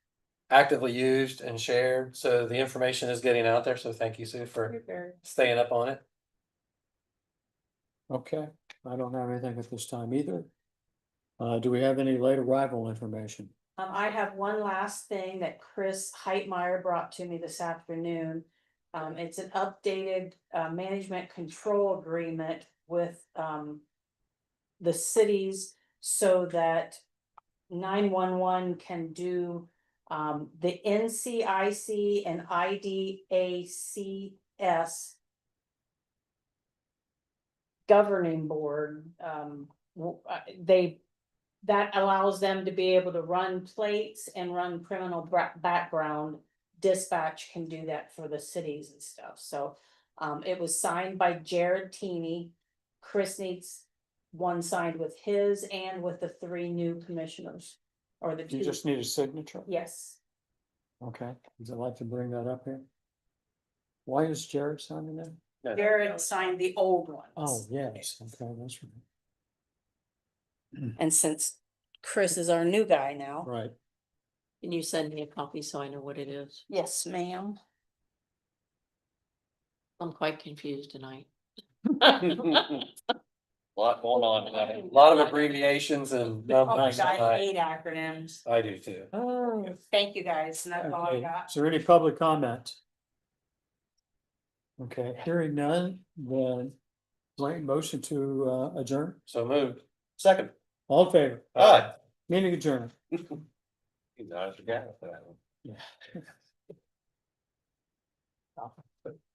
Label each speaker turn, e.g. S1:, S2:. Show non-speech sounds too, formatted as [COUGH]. S1: actively used and shared, so the information is getting out there, so thank you, Sue, for staying up on it.
S2: Okay, I don't have anything at this time either. Uh, do we have any late arrival information?
S3: Um, I have one last thing that Chris Heitmeyer brought to me this afternoon. Um, it's an updated, uh, management control agreement with, um. The cities so that nine one one can do, um, the NCIC and IDACS. Governing board, um, w- uh, they that allows them to be able to run plates and run criminal bra- background. Dispatch can do that for the cities and stuff, so, um, it was signed by Jared Teeny. Chris needs one signed with his and with the three new commissioners, or the
S2: You
S3: two,
S2: just need a signature?
S3: yes.
S2: Okay, would you like to bring that up here? Why is Jared signing that?
S1: [LAUGHS]
S3: Jared signed the old
S2: Oh,
S3: ones,
S2: yes, okay, that's right.
S3: and since Chris is our new guy now.
S2: Right,
S4: Can you send me a copy so I know what it is?
S3: Yes, ma'am.
S4: I'm quite confused tonight.
S1: Lot going on, tonight. a lot of abbreviations and
S2: Oh,
S1: numbers.
S3: Oh I
S1: tonight.
S3: hate acronyms.
S1: I do too.
S3: Thank you guys, and Oh, that's all I
S2: okay,
S3: got.
S2: is there any public comment? Okay, hearing none, then, late motion to uh, adjourn,
S1: So moved. Second.
S2: all in favor,
S1: Aye.
S2: meeting adjourned.
S1: You know, I forgot that one.